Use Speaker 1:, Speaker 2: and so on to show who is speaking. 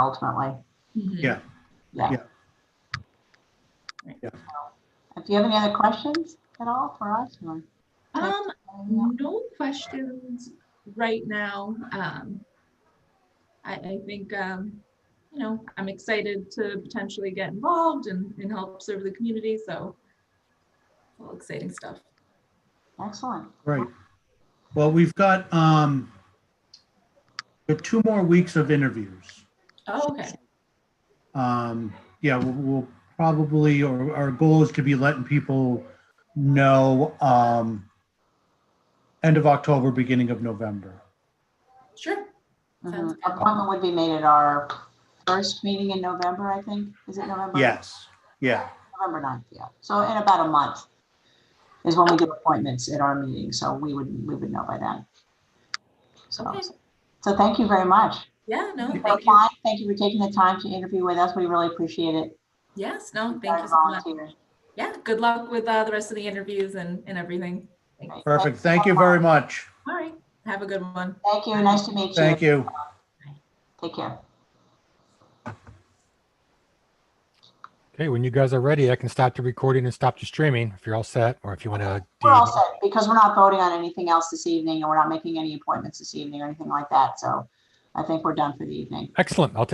Speaker 1: ultimately.
Speaker 2: Mhm.
Speaker 3: Yeah.
Speaker 1: Yeah.
Speaker 3: Yeah.
Speaker 1: Right.
Speaker 3: Yeah.
Speaker 1: So, Do you have any other questions at all for us? or-
Speaker 2: Um, no questions right now. Um, I, I think, um, you know, I'm excited to potentially get involved and, and help serve the community, so all exciting stuff.
Speaker 1: Excellent.
Speaker 3: Right. Well, we've got, um, we have two more weeks of interviews.
Speaker 2: Oh, okay.
Speaker 3: Um, yeah, we'll, we'll probably, or our goal is to be letting people know, um, end of October, beginning of November.
Speaker 2: Sure. Sounds
Speaker 1: Mhm.
Speaker 2: good.
Speaker 1: Appointment would be made at our first meeting in November, I think. Is it November?
Speaker 3: Yes, yeah,
Speaker 1: November 9th, yeah. So in about a month is when we do appointments at our meeting, so we would, we would know by then. So,
Speaker 2: Okay.
Speaker 1: so thank you very much.
Speaker 2: Yeah, no,
Speaker 1: Thank
Speaker 2: thank
Speaker 1: you.
Speaker 2: you.
Speaker 1: Thank you for taking the time to interview with us. We really appreciate it.
Speaker 2: Yes, no,
Speaker 1: Our
Speaker 2: thank you so much.
Speaker 1: volunteers.
Speaker 2: Yeah, good luck with uh, the rest of the interviews and, and everything.
Speaker 1: Right.
Speaker 3: perfect.
Speaker 1: so
Speaker 3: Thank you
Speaker 1: much.
Speaker 3: very much.
Speaker 2: All right, have a good one.
Speaker 1: Thank you. Nice to meet you.
Speaker 3: Thank you.
Speaker 1: Take care.
Speaker 4: Okay, when you guys are ready, I can stop the recording and stop the streaming if you're all set, or if you want to.
Speaker 1: We're all set because we're not voting on anything else this evening and we're not making any appointments this evening or anything like that. So I think we're done for the evening.
Speaker 4: Excellent. I'll take